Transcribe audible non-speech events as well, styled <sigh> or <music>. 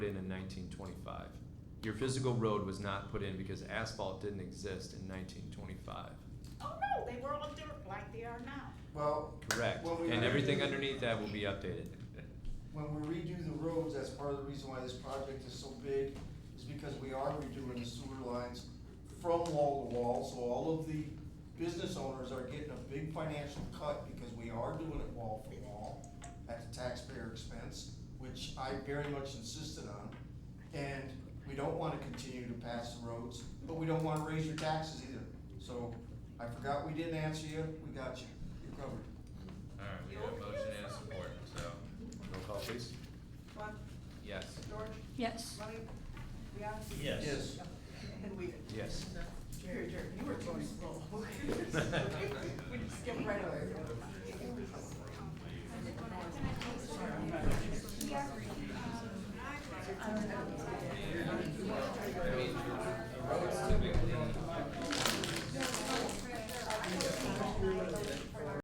1925. Your physical road was not put in because asphalt didn't exist in 1925. Oh, no, they were all dirt like they are now. Well, Correct. Well, we- And everything underneath that will be <laughs> updated. when we redo the roads, that's part of the reason why this project is so big, is because we are redoing the sewer lines from wall to wall, so all of the business owners are getting a big financial cut because we are doing it wall for wall at the taxpayer expense, which I very much insisted on. And we don't wanna continue to pass the roads, but we don't wanna raise your taxes either. So I forgot we didn't answer you, we got you, you're covered. Alright, we have a motion and support, so, Roll call, please. Lunt, yes. George, Yes. Money, Leon, Yes. Yes. and Weeden. Yes. Jerry, Jerry, you were going slow. <laughs> We just skipped right over. Can I please- Yeah. Um,